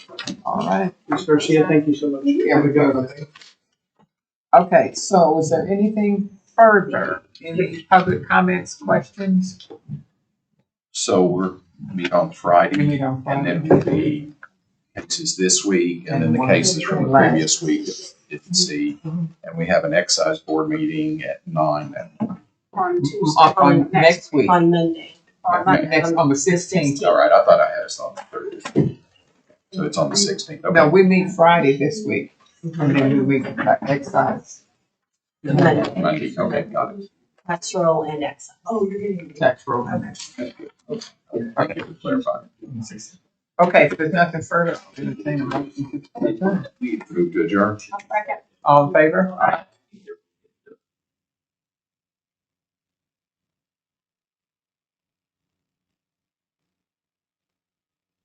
All right, Ms. Garcia, thank you so much. here we go. Okay, so is there anything further? Any public comments, questions? So we're meet on We Friday need on and Friday. then we'll be cases this week and then the cases from the previous week that we didn't see. Mm-hmm. And we have an excise board meeting at nine that on Tuesday. Mm-hmm. On, on next week, On Monday. on next, on the sixteenth. All right, I thought I had us on the thirtieth. So it's on the sixteenth. No, Okay. we meet Friday this week, and then we meet uh, excise, Monday, Monday, okay, got it. pastoral and exile. Oh, you're getting. tax roll. Thank you for clarifying. Okay, if there's nothing further, I'll entertain a motion to adjourn. Move to adjourn. All in favor? Aye.